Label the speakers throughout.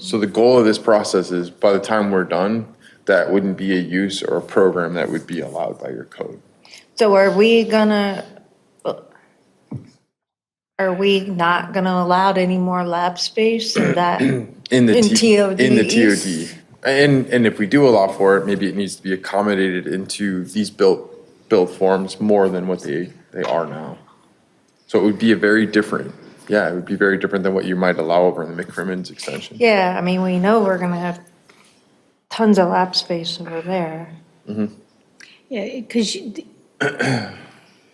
Speaker 1: So the goal of this process is by the time we're done, that wouldn't be a use or a program that would be allowed by your code.
Speaker 2: So are we gonna, are we not gonna allow any more lab space in that?
Speaker 1: In the
Speaker 2: In
Speaker 1: T-
Speaker 2: E.
Speaker 1: E. In the
Speaker 2: TODs?
Speaker 1: TOD. And, and if we do allow for it, maybe it needs to be accommodated into these built, built forms more than what they, they are now. So it would be a very different, yeah, it would be very different than what you might allow over in the McCrimmon's extension.
Speaker 2: Yeah, I mean, we know we're gonna have tons of lab space over there.
Speaker 3: Yeah, because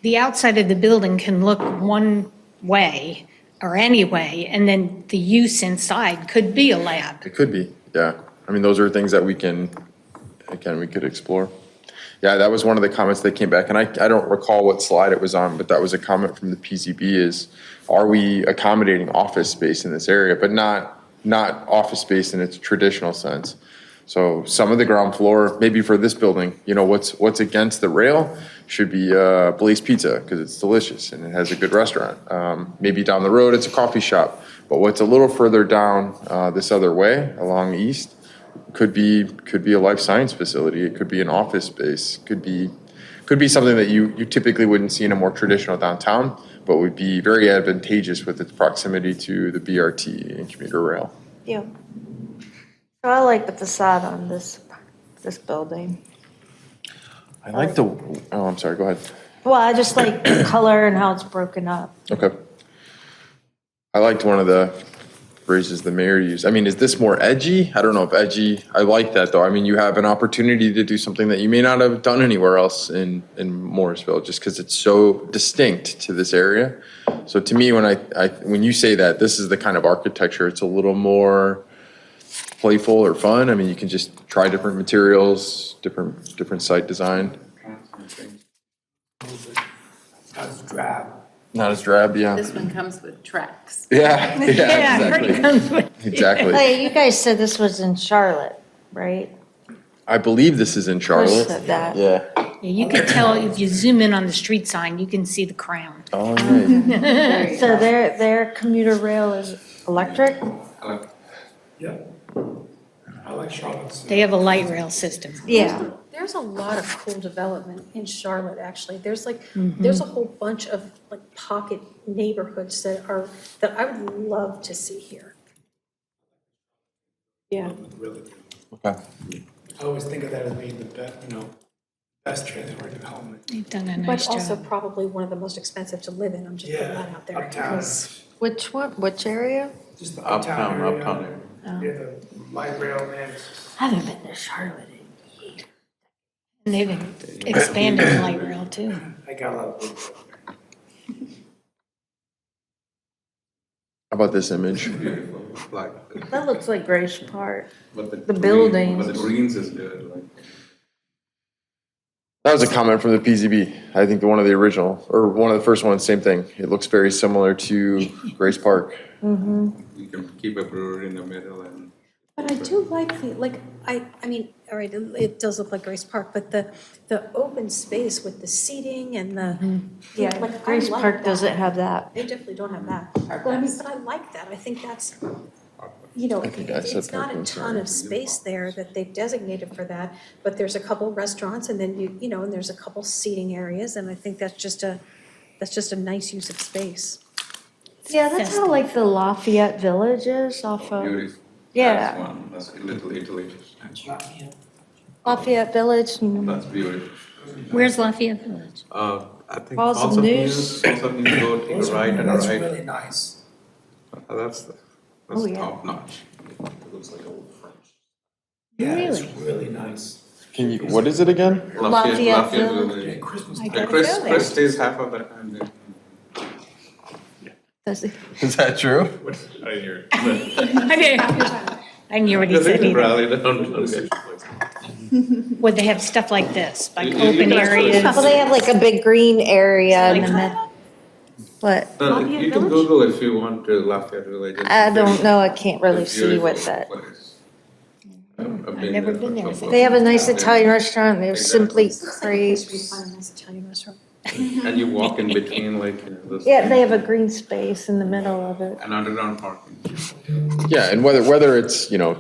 Speaker 3: the outside of the building can look one way or any way, and then the use inside could be a lab.
Speaker 1: It could be, yeah. I mean, those are things that we can, again, we could explore. Yeah, that was one of the comments that came back, and I, I don't recall what slide it was on, but that was a comment from the PZB is, are we accommodating office space in this area, but not, not office space in its traditional sense? So some of the ground floor, maybe for this building, you know, what's, what's against the rail should be uh, Blaze Pizza because it's delicious and it has a good restaurant. Um, Maybe down the road, it's a coffee shop. But what's a little further down uh, this other way, along east, could be, could be a life science facility. It could be an office space, could be, could be something that you, you typically wouldn't see in a more traditional downtown, but would be very advantageous with its proximity to the BRT and commuter rail.
Speaker 2: Yeah. I like the facade on this, this building.
Speaker 1: I like the, oh, I'm sorry, go ahead.
Speaker 2: Well, I just like the color and how it's broken up.
Speaker 1: Okay. I liked one of the phrases the mayor used. I mean, is this more edgy? I don't know if edgy, I like that though. I mean, you have an opportunity to do something that you may not have done anywhere else in, in Morrisville, just because it's so distinct to this area. So to me, when I, I, when you say that, this is the kind of architecture, it's a little more playful or fun. I mean, you can just try different materials, different, different site design. Not as drab, yeah.
Speaker 4: This one comes with tracks.
Speaker 1: Yeah, yeah, exactly, exactly.
Speaker 2: Hey, you guys said this was in Charlotte, right?
Speaker 1: I believe this is in Charlotte.
Speaker 2: said that.
Speaker 1: Yeah.
Speaker 3: You can tell, if you zoom in on the street sign, you can see the crown.
Speaker 1: All right.
Speaker 2: So their, their commuter rail is electric?
Speaker 5: Yeah. I like Charlotte's.
Speaker 3: They have a light rail system.
Speaker 2: Yeah.
Speaker 6: There's a lot of cool development in Charlotte, actually. There's like, there's a whole bunch of like pocket neighborhoods that are, that I would love to see here. Yeah.
Speaker 5: Really do.
Speaker 1: Okay.
Speaker 5: I always think of that as being the best, you know, best transport development.
Speaker 3: They've done a nice
Speaker 6: But also
Speaker 3: job.
Speaker 6: probably one of the most expensive to live in, I'm just putting that
Speaker 5: Yeah,
Speaker 6: out there.
Speaker 5: uptown,
Speaker 6: because-
Speaker 2: Which one, which area?
Speaker 5: just the uptown area. Yeah, the light rail and
Speaker 2: I haven't been to Charlotte.
Speaker 3: And they've expanded the light rail too.
Speaker 5: I got a lot of. people.
Speaker 1: How about this image?
Speaker 7: Like,
Speaker 2: That looks like Grace Park.
Speaker 7: but the.
Speaker 2: The
Speaker 7: green-
Speaker 2: buildings.
Speaker 7: But the greens is good, like.
Speaker 1: That was a comment from the PZB. I think the one of the original, or one of the first ones, same thing. It looks very similar to Grace Park.
Speaker 7: You can keep a brewery in the middle and.
Speaker 6: But I do like the, like, I, I mean, all right, it- it does look like Grace Park, but the, the open space with the seating and the, yeah, like, I
Speaker 2: Yeah, Mm-hmm. Grace
Speaker 6: like
Speaker 2: Park
Speaker 6: that.
Speaker 2: doesn't have that.
Speaker 6: They definitely don't have that. But I mean, but I like that. I think that's, you know,
Speaker 1: I think I
Speaker 6: it-
Speaker 1: said
Speaker 6: it's not a
Speaker 1: parking,
Speaker 6: ton of space there that they've designated for that, but there's a couple restaurants and then you, you know, and there's a couple seating areas, and I think that's just a, that's just a nice use of space.
Speaker 2: Yeah, that's how like the Lafayette Village is off of,
Speaker 7: beautiful. That's
Speaker 2: yeah,
Speaker 7: one, that's Little Italy,
Speaker 2: Lafayette Village. and-
Speaker 7: that's beautiful.
Speaker 3: Where's Lafayette Village?
Speaker 7: Uh, I think
Speaker 2: Falls
Speaker 7: Falls
Speaker 2: of
Speaker 7: of
Speaker 2: News.
Speaker 7: News, Falls of News, go take a right and a
Speaker 5: That's
Speaker 7: right,
Speaker 5: really nice.
Speaker 7: Uh, that's, the-
Speaker 2: Oh,
Speaker 7: that's
Speaker 2: yeah.
Speaker 7: top notch.
Speaker 5: Yeah, it's
Speaker 3: Really?
Speaker 5: really nice.
Speaker 1: Can you, what is it again?
Speaker 2: Lafayette Village.
Speaker 5: Yeah,
Speaker 7: Village.
Speaker 5: Christmas.
Speaker 3: I
Speaker 7: Yeah,
Speaker 3: gotta
Speaker 7: Uh, Chris,
Speaker 3: go there.
Speaker 7: Chris stays half of uh, the time there.
Speaker 2: Does it-
Speaker 1: Is that true?
Speaker 7: I hear.
Speaker 3: I didn't, I knew what he said either.
Speaker 7: Rally down, okay.
Speaker 3: Would they have stuff like this, like
Speaker 7: You- you
Speaker 3: open
Speaker 7: can ask Chris.
Speaker 3: areas?
Speaker 2: Well, they have like a big green area in the
Speaker 3: Like-
Speaker 2: middle. What?
Speaker 7: No, no, Uh, you can Google if you want to Lafayette Village. It's
Speaker 2: I don't
Speaker 7: very-
Speaker 2: know, I can't really
Speaker 7: it's
Speaker 2: see what
Speaker 7: beautiful
Speaker 2: that.
Speaker 7: place.
Speaker 3: I've never been there.
Speaker 2: They have a nice Italian restaurant, they're simply
Speaker 6: Looks like a place where you
Speaker 2: crepes.
Speaker 6: find a nice Italian restaurant.
Speaker 7: And you walk in between like, you know, those.
Speaker 2: Yeah, they have a green space in the middle of it.
Speaker 7: An underground parking.
Speaker 1: Yeah, and whether, whether it's, you know,